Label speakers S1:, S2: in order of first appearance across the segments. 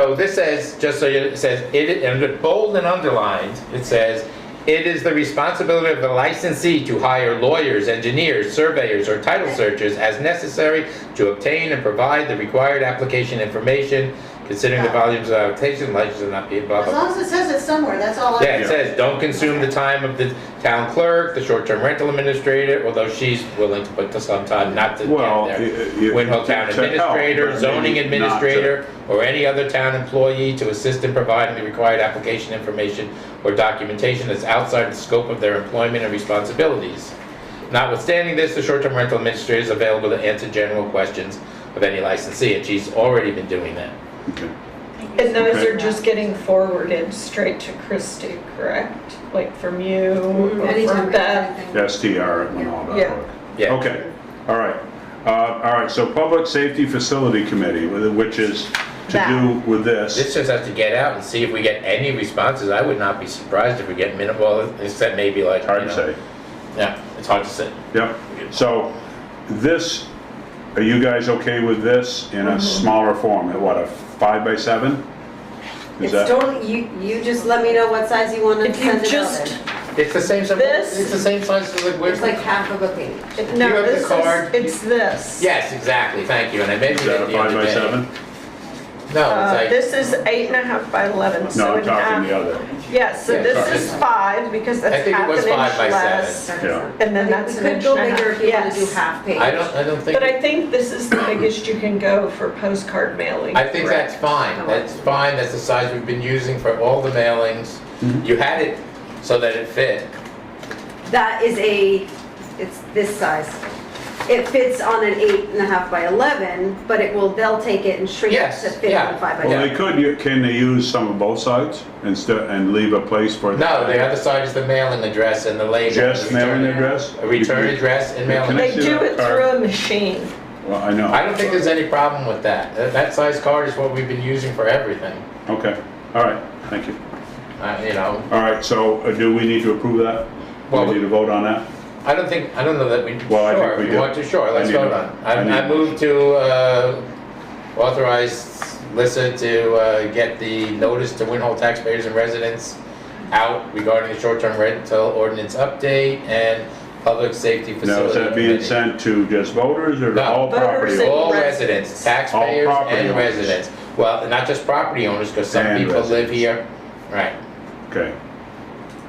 S1: So this says, just so you, it says, it, and it's bold and underlined, it says, "It is the responsibility of the licensee to hire lawyers, engineers, surveyors, or title searchers as necessary to obtain and provide the required application information, considering the
S2: Yeah.
S1: volumes of application, license will not be blah,
S2: As
S1: blah, blah."
S2: long as it says it somewhere, that's all I.
S1: Yeah, it says, "Don't consume the time of the town clerk, the short-term rental administrator," although she's willing to put some time, not to
S3: Well,
S1: get there.
S3: it- it-
S1: Windhoe Town
S3: to help,
S1: Administrator,
S3: but
S1: zoning
S3: maybe not to-
S1: administrator, or any other town employee to assist in providing the required application information or documentation that's outside the scope of their employment and responsibilities. Notwithstanding this, the short-term rental administrator is available to answer general questions of any licensee, and she's already been doing that.
S3: Okay.
S4: And those
S3: Okay.
S4: are just getting forwarded straight to Christie, correct? Like from you or
S2: Anytime,
S4: from Beth?
S2: anything.
S3: STR at Winall.org.
S1: Yeah.
S3: Okay, all right. Uh, All right, so Public Safety Facility Committee, with- which is to
S4: That.
S3: do with
S1: This
S3: this.
S1: just has to get out and see if we get any responses. I would not be surprised if we get minimal, except maybe like,
S3: Hard
S1: you
S3: to
S1: know.
S3: say.
S1: Yeah, it's hard to say.
S3: Yep. So this, are you guys okay with this in a smaller form? At What, a five by seven?
S5: It's
S3: Is that?
S5: totally, you, you just let me know what size you want to
S4: If you
S5: send it out
S4: just,
S5: in.
S1: It's the same, size-
S4: This-
S1: it's the same size as like, where's
S5: It's like half of a page.
S1: You have
S4: no,
S1: the
S4: this
S1: card.
S4: is, it's this.
S1: Yes, exactly, thank you, and I mentioned
S3: Is that
S1: it
S3: a
S1: the
S3: five
S1: other
S3: by
S1: day.
S3: seven?
S1: No,
S4: Uh,
S1: Oh, it's
S4: This is eight and a half by 11,
S3: No,
S4: so
S3: I'm
S4: an
S3: talking the
S4: half.
S3: other.
S4: Yes, so
S1: Yeah, sorry.
S4: this is five because
S1: I
S4: that's
S1: think it
S4: half an
S1: was
S4: inch
S1: five by seven.
S4: less.
S3: Yeah.
S4: And then that's an inch and a
S5: We could go bigger if
S4: half.
S5: you want to do
S4: Yes.
S5: half page.
S1: like, I don't, I don't think,
S4: But I think this is the biggest you can go for postcard mailing.
S1: I think that's fine, that's fine, that's the size we've been using for all the mailings.
S3: Mm-hmm.
S1: You had it so that it fit,
S5: That is a, it's this size. It fits on an eight and a half by 11, but it will, they'll take it and shrink it
S1: Yes,
S5: to fit
S1: yeah.
S5: on five
S1: Yeah.
S5: by
S3: Well,
S5: 10.
S3: they could, u- can they use some of both sides instead, and leave a place for?
S1: no, the other side is the mailing address and the label.
S3: Just mailing
S1: Return-
S3: address?
S1: A return address and mailing.
S3: Can I
S4: They
S3: see
S4: do
S3: that
S4: it
S3: card?
S4: through a machine.
S3: Well, I know.
S1: I don't think there's any problem with that. That- That size card is what we've been using for everything,
S3: Okay, all right, thank you.
S1: Uh, you know.
S3: All right, so uh, do we need to approve that?
S1: Well,
S3: We need to vote on that?
S1: I don't think, I don't know that we,
S3: Well, I think
S1: sure,
S3: we
S1: if you
S3: do.
S1: want to, sure, let's
S3: I need
S1: vote
S3: a-
S1: on. it.
S3: I need
S1: I I
S3: a-
S1: move to uh, authorize Lissa to uh, get the notice to Winhall taxpayers and residents out regarding the short-term rental ordinance update and public safety
S3: Now,
S1: facility
S3: is that being
S1: committee.
S3: sent to just voters or to
S1: No.
S3: all property?
S4: Voters and-
S1: All residents, taxpayers
S3: All property
S1: and
S3: owners.
S1: residents. Well, not just property owners, because some
S3: And
S1: people live
S3: residents.
S1: here. Right.
S3: Okay.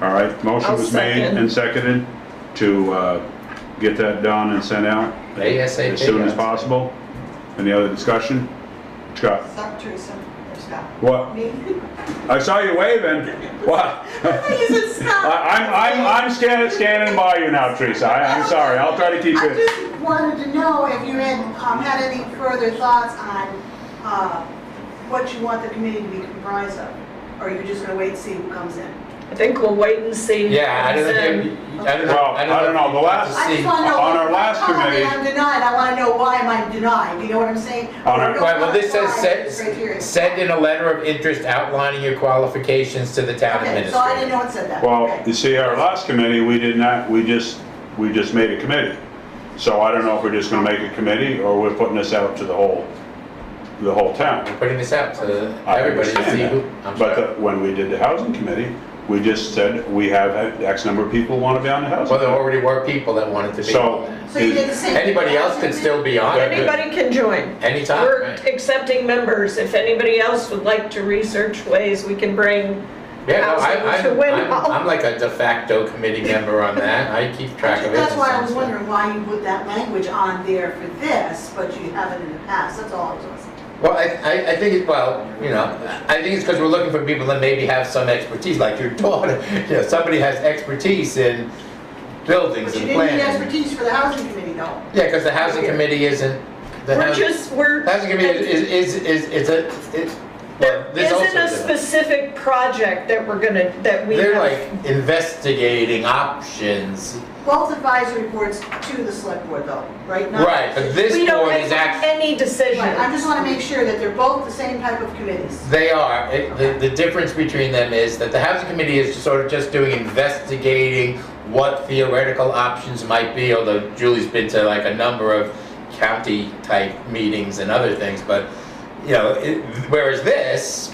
S3: All right, motion
S4: I'll
S3: was made
S4: second.
S3: and seconded to uh, get that done and sent out.
S1: ASAP.
S3: As soon as possible. Any other discussion? Scott?
S2: Stop, Teresa, or Scott.
S3: What?
S2: Me?
S3: I saw you waving. What?
S2: You said Scott.
S3: I- I'm, I'm, I'm scanning, scanning by you now, Teresa. I- I'm sorry, I'll try to keep
S2: I
S3: it.
S2: just wanted to know if you had, um, had any further thoughts on, uh, what you want the committee to be comprised of? Or are you just gonna wait to see who comes in?
S4: I think we'll wait and see. who
S1: Yeah, I don't
S4: comes in.
S1: know, I don't know.
S3: Well, I don't know, the
S1: if you want
S3: last-
S1: to
S2: I
S1: see-
S2: just wanna know.
S3: on our last
S2: if I'm
S3: committee-
S2: I'm denied, I wanna know why am I denied, you know what I'm saying?
S3: On our-
S1: Right, well, this says,
S2: Criteria.
S1: send, send in a letter of interest outlining your qualifications to the town
S2: Okay, so I
S1: administrator.
S2: didn't know it said that.
S3: Well,
S2: Okay.
S3: you see, our last committee, we did not, we just, we just made a committee. So I don't know if we're just gonna make a committee or we're putting this out to the whole, the whole town.
S1: I'm putting this out to
S3: I
S1: everybody to
S3: understand
S1: see
S3: that.
S1: who, I'm
S3: But
S1: sorry.
S3: the- when we did the housing committee, we just said, we have X number of people want to be on the
S1: Well, there
S3: housing.
S1: already were people that wanted to be.
S3: So.
S2: So you did the same.
S1: Anybody else can still be on it. but
S4: Anybody can join.
S1: Anytime,
S4: We're
S1: right?
S4: accepting members. If anybody else would like to research ways we can bring,
S1: Yeah, no, I,
S4: Housing to
S1: I'm,
S4: win
S1: I'm,
S4: all.
S1: I'm like a de facto committee member on that. I keep track of it.
S2: That's
S1: and
S2: why I
S1: stuff,
S2: was
S1: so.
S2: wondering why you put that language on there for this, but you haven't in the past, that's all I was asking.
S1: Well, I, I, I think it's, well, you know, I think it's because we're looking for people that maybe have some expertise, like your daughter. You know, somebody has expertise in buildings
S2: But you
S1: and
S2: didn't
S1: planning.
S2: need expertise for the housing committee though.
S1: Yeah, because the housing committee isn't, the
S4: we're
S1: housing,
S4: just, we're.
S1: housing committee is, is, is, is a, it's, well, this
S4: There
S1: also.
S4: isn't a
S1: is a-
S4: specific project that we're gonna, that we
S1: They're
S4: have.
S1: like investigating options,
S2: Both advisory boards to the select board though, right? Not-
S1: right, but this
S4: We don't
S1: board
S4: make
S1: is actually,
S4: any decision.
S2: Right, I just want to make sure that they're both the same type of committees.
S1: they are, It- the, the difference between them is that the housing committee is sort of just doing investigating what theoretical options might be, although Julie's been to like a number of county-type meetings and other things, but you know, it- whereas this,